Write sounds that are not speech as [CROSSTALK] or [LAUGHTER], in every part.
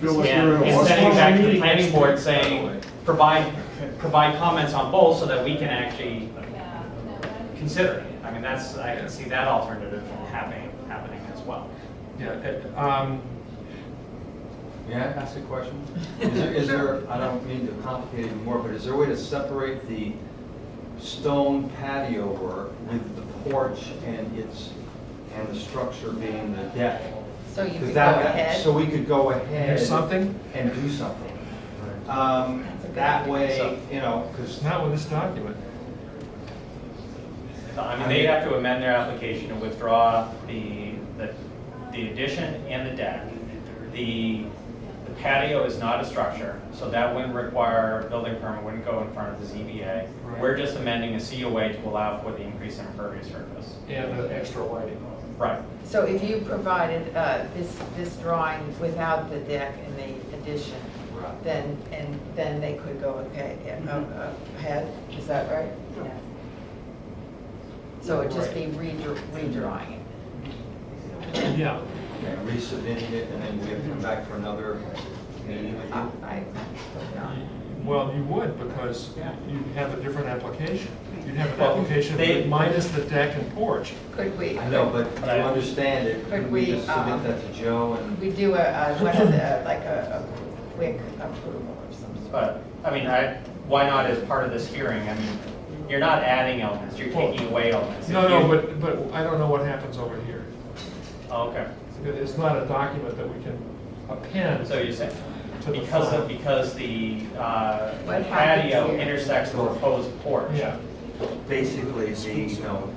feel like Yeah, you're in a and sending it Westland. back to the planning board saying, provide, provide comments on both so that we can actually Yeah, no, that- consider it. I mean, that's, I can see that alternative happening, happening as well. Yeah, uh, um, may I ask a question? Is there, is there, I don't mean to complicate it anymore, but is there a way to separate the stone patio work with the porch and its, and the structure being the deck? So you Because could go that- ahead. So we could go ahead. There's something? And do something. Um, That's a good that idea. way, you know, because. It's not with this document. I mean, they have to amend their application and withdraw the, the- the addition and the deck. The the patio is not a structure, so that wouldn't require a building permit, wouldn't go in front of the ZBA. Right. We're just amending a COA to allow for the increase in impervious surface. And the extra lighting. Right. So if you provided uh, this, this drawing without the deck and the addition, then, and then they could go ahead, Mm-hmm. uh, uh, ahead, is that right? Yeah. So it'd just be redra- redrawing it. Yeah. And resubmitting it, and then we have to come back for another meeting with I, you. I would not. Well, you would, because Yeah. you'd have a different application. You'd have an Well, application they- minus the deck and porch. Could we, I know, but But to I- understand it, Could could we we, just submit um, that to Joe and? we do a, a- one of the, like a, a quick approval or something? But, I mean, I, why not as part of this hearing? I mean, you're not adding elements, you're taking away elements. No, no, If but, but I don't know what happens over here. you- Oh, Okay, It- It's not a document that we can append. so you're saying, To the because, front. of- because the uh, What happens patio here? intersects the proposed porch. Yeah, Basically, the, you know,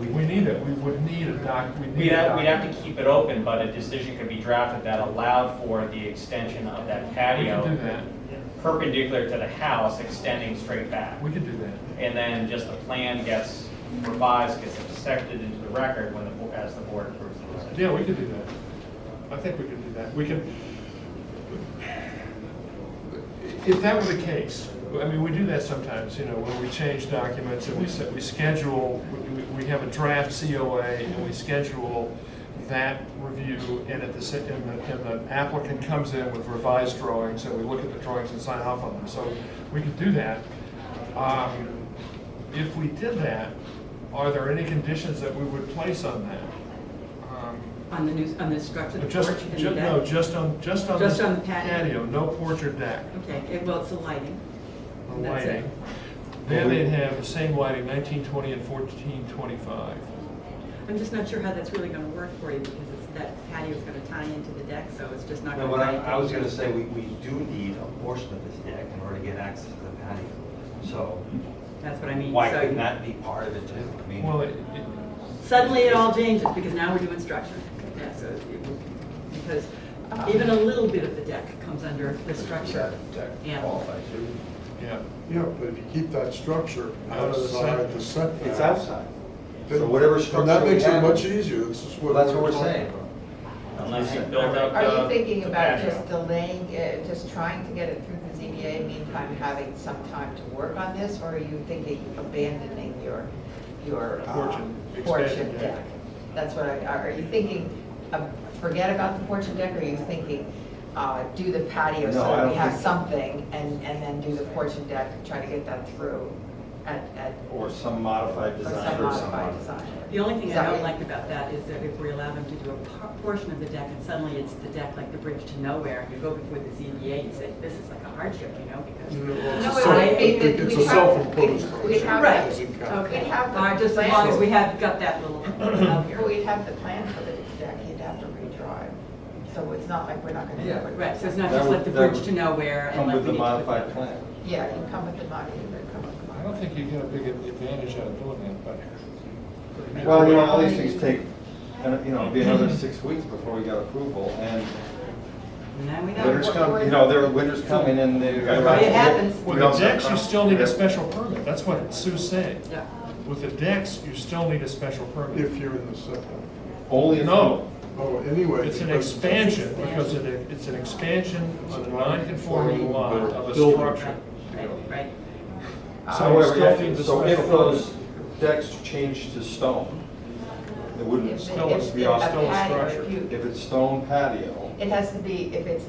we need it, we would need a doc, we We'd need a have, we'd document. have to keep it open, but a decision could be drafted that allowed for the extension of that We could do patio that, perpendicular to the house, extending straight back. we could do that. And then just the plan gets revised, gets accepted into the record when the, bo- as the board approves the decision. Yeah, we could do that. I think we could do that. We can, if that were the case, I mean, we do that sometimes, you know, when we change documents and we set, we schedule, we- we have a draft COA and we schedule that review and at the, sa- and the- and the applicant comes in with revised drawings and we look at the drawings and sign off on them. So we could do that. Um, If we did that, are there any conditions that we would place on that? Um, On the new, on the structure, the Just, porch and ju- the no, deck? just on, just on. Just the on the patio. no porch or deck, Okay, eh, well, it's the lighting. the And that's it. lighting. Then they'd have the same lighting, nineteen twenty and fourteen twenty-five. I'm just not sure how that's really gonna work for you, because it's, that patio's gonna tie into the deck, so it's just not No, gonna. what I, tie I was into- gonna say, we, we do need a portion of this deck in order to get access to the patio. So That's what I mean. why so- couldn't that be part of it too? I mean, Well, it- it- Suddenly it all changes, because now we're doing structure. Yeah, so it will- Because even a little bit of the deck comes under the structure. Yeah. yeah, Yeah, but if you keep that structure Out of the outside the setback. it's outside. then- So whatever And that structure we makes it have- much e- easier, this is Well, what. that's we what we're talking saying. about. Unless you build uh, up Are the- you thinking the about patio. just delaying, uh, just trying to get it through the ZBA, meantime having some time to work on this? Or are you thinking abandoning your, your uh, Porch and porch expanding and deck. deck? That's what I, are are you thinking, uh, forget about the porch and deck, or are you thinking, uh, do the patio so No, I that we don't have think- something? And, and then do the porch and deck, try to get that through at, at, Or some modified or design some or some. modified design? The only thing Is I that don't what- like about that is that if we allow them to do a par- portion of the deck and suddenly it's the deck like the bridge to nowhere, and you go before the ZBA and say, this is like a hardship, you know, because. No, No, it it's a would be that self- It's we a have- self-imposed. we- we have- hardship. Right, Doesn't count. okay. We'd have the All right, just as long as we plan. have got that little out Well, here. we'd [COUGHS] have the plan for the deck, you'd have to redraw it, so it's not like we're not gonna do Yeah. it. Right, so it's not That just would- like the that bridge would to nowhere and Come like. with we the need to put- modified plan. Yeah, you come with the money, you better come with the I don't money. think you get a big advantage out of doing that, but. Well, you know, all these things take, and, you know, it'd be another six weeks before we got approval, and And then we winter's know. coming, you know, there are winters coming and they. It happens. With the decks, you still need a special permit, that's what Sue's saying. Yeah. With the decks, you still need a special permit. If you're in the setback. Only. if- No, Oh, anyway. it's an because- expansion, because it, it's an expansion on a non-conforming lot of a Building. structure. Right, right. So you However, still need yeah, the so if special those permit. decks change to stone, it wouldn't If- still if- be if off. still a patio, if structure. you- If it's stone patio. It has to be, if it's